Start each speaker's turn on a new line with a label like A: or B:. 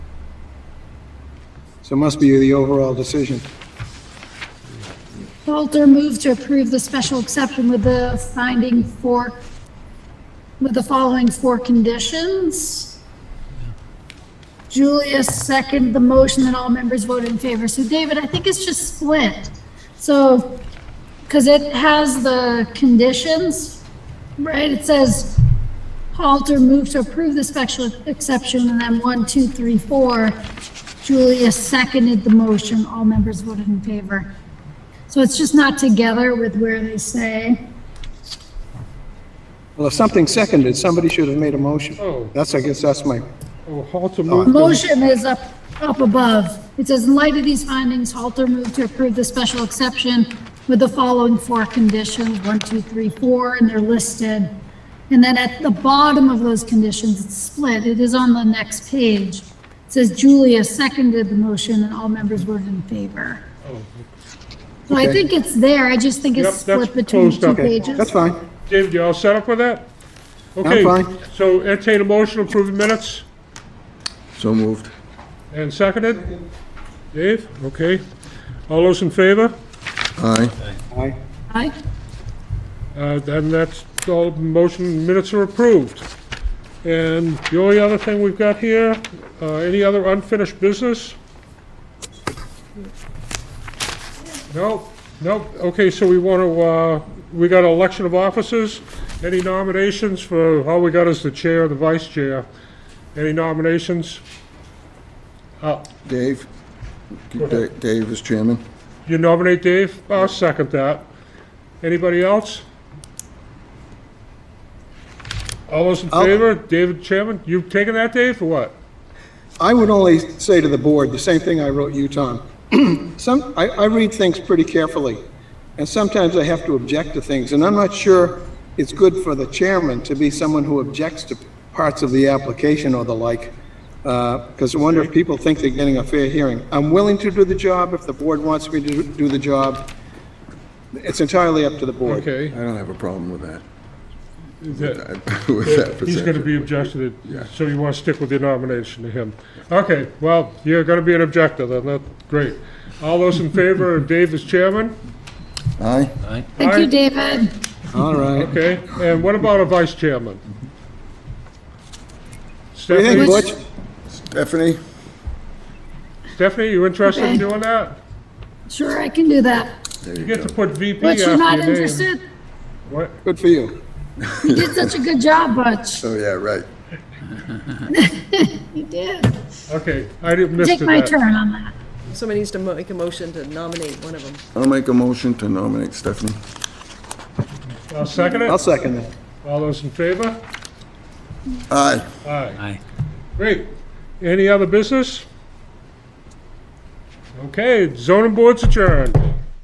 A: So it must be the overall decision.
B: Walter moves to approve the special exception with the finding for, with the following four conditions. Julia seconded the motion and all members voted in favor. So David, I think it's just split. So, because it has the conditions, right? It says Halter moved to approve the special exception and then one, two, three, four. Julia seconded the motion. All members voted in favor. So it's just not together with where they say,
A: Well, if something seconded, somebody should have made a motion.
C: Oh.
A: That's, I guess that's my,
C: Oh, Halter moved to,
B: motion is up, up above. It says, in light of these findings, Halter moved to approve the special exception with the following four conditions, one, two, three, four, and they're listed. And then at the bottom of those conditions, it's split. It is on the next page. It says Julia seconded the motion and all members voted in favor. So I
A: Okay.
B: think it's there. I just think
C: Yep,
B: it's
C: that's
B: split between
C: closed
B: two
C: up.
A: okay,
B: pages.
A: that's fine.
C: David, you all set up with that?
A: fine.
C: Okay, so entertain a motion to approve the minutes
D: So moved.
C: and seconded? Dave, okay. All those in favor?
D: Aye.
A: Aye.
B: Aye.
C: Uh, Then that's, all motion minutes are approved. And the only other thing we've got here, uh, any other unfinished business? No, no, okay, so we want to, uh, we got election of officers. Any nominations for, all we got is the chair, the vice chair. Any nominations? Uh,
D: Dave? Da- Dave is chairman.
C: You nominate Dave? I'll second that. Anybody else? All those in
A: I'll-
C: favor? David Chairman, you've taken that, Dave, or what?
A: I would only say to the board, the same thing I wrote you, Tom. Some, I, I read things pretty carefully, and sometimes I have to object to things, and I'm not sure it's good for the chairman to be someone who objects to parts of the application or the like, because I wonder if people think they're getting a fair hearing. I'm willing to do the job if the board wants me to do- do the job. It's entirely up to the board.
C: Okay.
D: I don't have a problem with that.
C: is that-
D: With that
C: He's going to
D: perception.
C: be objected, so you want to stick with your nomination to him. Okay, well, you're going to be an objector, then, that's great. All those in favor of Dave as chairman?
D: Aye.
B: Thank
C: Aye.
B: you, David.
A: All right.
C: Okay, and what about a vice chairman?
A: What do you think,
C: Stephanie,
A: Butch?
D: Stephanie?
C: Stephanie, you interested in
B: Okay.
C: doing that?
B: Sure, I can do that.
D: There you
C: You get
D: go.
C: to put VP
B: But
C: after
B: you're
C: your
B: not
C: name.
B: interested?
C: What?
A: Good for you.
B: You did such a good job, Butch.
D: Oh, yeah, right.
B: You did.
C: Okay, I didn't miss
B: Take my
C: that.
B: turn on that.
E: Somebody needs to mo- make a motion to nominate one of them.
D: I'll make a motion to nominate Stephanie.
C: I'll second
A: I'll
C: it.
A: second that.
C: All those in favor?
D: Aye.
C: Aye. Great. Any other business? Okay, zoning board's adjourned.